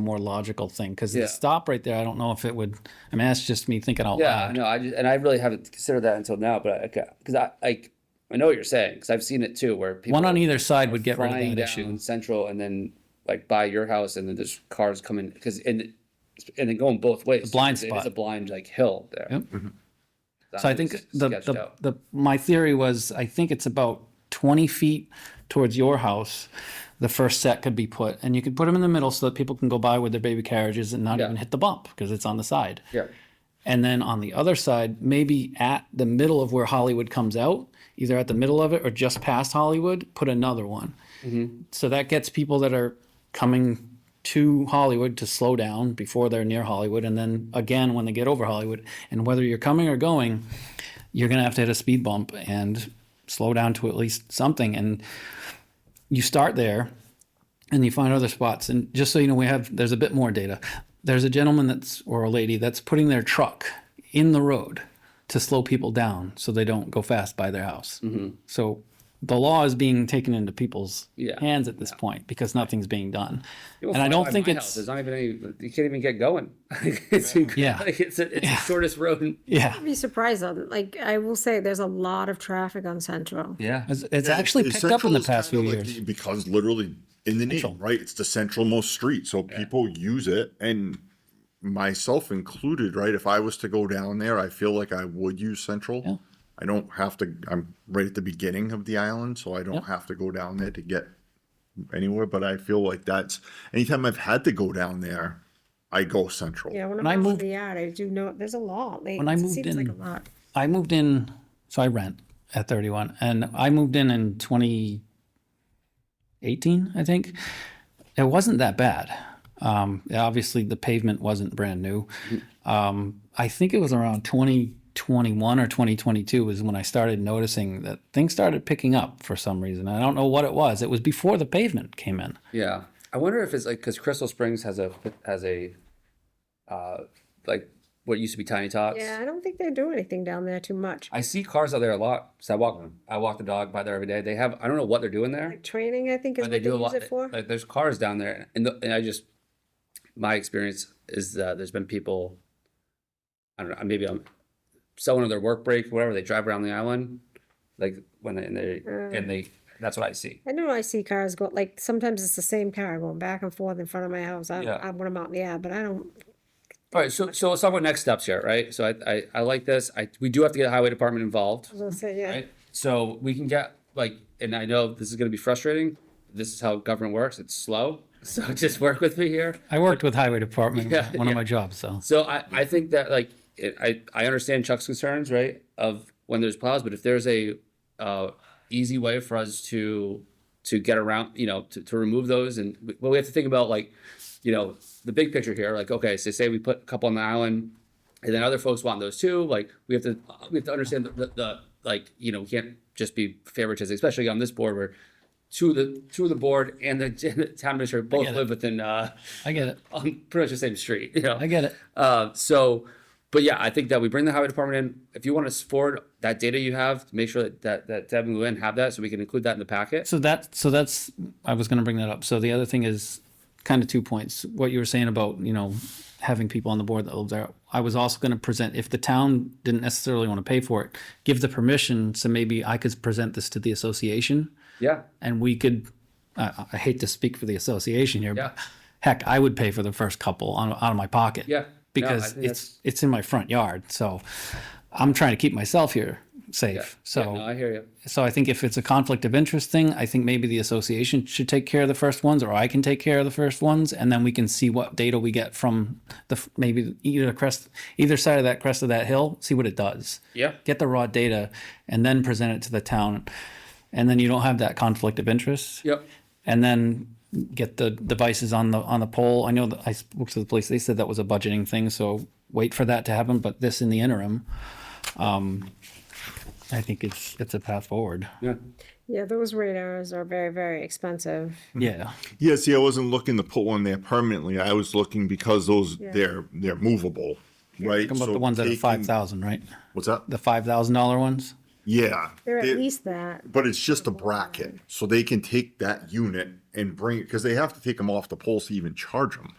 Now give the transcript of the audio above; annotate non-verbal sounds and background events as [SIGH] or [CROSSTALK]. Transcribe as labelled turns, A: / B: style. A: more logical thing because
B: Yeah.
A: the stop right there, I don't know if it would. I mean, that's just me thinking out
B: Yeah,
A: loud.
B: no, I just, and I really haven't considered that until now, but I, because I, like, I know what you're saying, because I've seen it too, where people.
A: One on either side would get rid of
B: flying
A: that
B: down
A: issue.
B: Central and then like by your house and then there's cars coming, because, and, and then going both ways.
A: blind
B: because It is
A: spot.
B: a blind like hill there.
A: Yep.
B: That
A: So I
B: is
A: think the,
B: sketched
A: the,
B: out.
A: the, my theory was, I think it's about twenty feet towards your house. The first set could be put, and you could put them in the middle so that people can go by with their baby carriages and not
B: Yeah.
A: even hit the bump because it's on the side.
B: Yeah,
A: And then on the other side, maybe at the middle of where Hollywood comes out, either at the middle of it or just past Hollywood, put another one. So that gets people that are coming to Hollywood to slow down before they're near Hollywood. And then again, when they get over Hollywood, and whether you're coming or going, you're going to have to hit a speed bump and slow down to at least something. And you start there and you find other spots. And just so you know, we have there's a bit more data. There's a gentleman that's or a lady that's putting their truck in the road to slow people down so they don't go fast by their house.
B: Mm-hmm.
A: So the law is being taken into people's
B: Yeah.
A: hands at this point because nothing's being done.
B: People
A: and I
B: fly
A: don't
B: by
A: think
B: my house,
A: it's
B: There's not even any, you can't even get going. [LAUGHS] It's incredible.
A: Yeah.
B: Like, it's, a- it's the shortest road.
A: yeah.
C: I'd be surprised though. Like I will say, there's a lot of traffic on Central.
B: Yeah.
A: It's, it's actually
D: Is
A: picked up in
D: Central
A: the
D: is
A: past few
D: kinda like
A: years.
D: the- because literally in the name, right? It's the centralmost street, so people use it, and myself included, right? If I was to go down there, I feel like I would use Central. I don't have to. I'm right at the beginning of the island, so I don't have to go down there to get anywhere. But I feel like that's anytime I've had to go down there, I go Central.
C: Yeah, when,
A: I
C: I was
A: moved-
C: moved, yeah, I do know there's a lot. Like,
A: When I
C: it
A: moved
C: seems
A: in-
C: like a lot.
A: I moved in, so I rent at 31, and I moved in in 2018, I think. It wasn't that bad. Um, obviously, the pavement wasn't brand new. Um, I think it was around 2021 or 2022 was when I started noticing that things started picking up for some reason. I don't know what it was. It was before the pavement came in.
B: Yeah, I wonder if it's like because Crystal Springs has a has a uh like what used to be Tiny Tots.
C: Yeah, I don't think they do anything down there too much.
B: I see cars out there a lot. So I walk I walk the dog by there every day. They have I don't know what they're doing there,
C: Like training, I think, is
B: but
C: what
B: they
C: they,
B: do a
C: use
B: lot.
C: it for.
B: Like there's cars down there, and the, and I just my experience is that there's been people. I don't know. Maybe I'm someone on their work break, whatever. They drive around the island, like when they and they,
C: Uh.
B: and they that's what I see.
C: I know I see cars go like sometimes it's the same car going back and forth in front of my house. I,
B: Yeah.
C: I when I'm out in the air, but I don't.
B: All right, so so let's talk about next steps here, right? So I I, I like this. I we do have to get the highway department involved.
C: I was gonna say yeah.
B: right? So we can get like, and I know this is gonna be frustrating. This is how government works. It's slow, [LAUGHS] so just work with me here.
A: I worked with highway department,
B: [LAUGHS] Yeah,
A: one
B: yeah.
A: of my jobs. So
B: So I, I think that like, it, I, I understand Chuck's concerns, right? Of when there's plows, but if there's a, uh, easy way for us to, to get around, you know, to, to remove those and, well, we have to think about like, you know, the big picture here, like, okay, so say we put a couple on the island and then other folks want those too, like, we have to, we have to understand the, the, the like, you know, we can't just be favoritizing, especially on this board where two of the, two of the board and the [LAUGHS] town administrator both
A: get it.
B: live within, uh, [LAUGHS]
A: I get it.
B: on pretty much the same street, you know?
A: I get it.
B: Uh, so, but yeah, I think that we bring the highway department in. If you want to forward that data you have, make sure that that, that Deb and Luann have that, so we can include that in the packet.
A: So that so that's I was going to bring that up. So the other thing is kind of two points. What you were saying about you know having people on the board that live there. I was also going to present if the town didn't necessarily want to pay for it, give the permission. So maybe I could present this to the association,
B: Yeah,
A: and we could. I, I hate to speak for the association here, but
B: Yeah.
A: heck, I would pay for the first couple on, out of my pocket.
B: Yeah. No, I
A: because
B: think
A: it's it's in my front yard, so I'm trying to keep myself here safe. So
B: no, I hear you.
A: so I think if it's a conflict of interest thing, I think maybe the association should take care of the first ones, or I can take care of the first ones, and then we can see what data we get from the f- maybe either crest, either side of that crest of that hill, see what it does.
B: Yeah.
A: Get the raw data, and then present it to the town, and then you don't have that conflict of interest
B: Yep.
A: and then get the devices on the on the pole. I know that I spoke to the police; they said that was a budgeting thing, so wait for that to happen. But this in the interim, um, I think it's it's a path forward.
B: Yeah.
C: Yeah, those radars are very very expensive.
A: Yeah,
D: Yeah, see, I wasn't looking to put one there permanently. I was looking because those they're they're movable, right?
A: How about
D: So
A: the ones that are
D: taking-
A: five thousand, right?
D: What's that?
A: The five thousand dollar ones.
D: yeah,
C: They're at
D: They're-
C: least that.
D: but it's just a bracket, so they can take that unit and bring it because they have to take them off the pole to even charge them.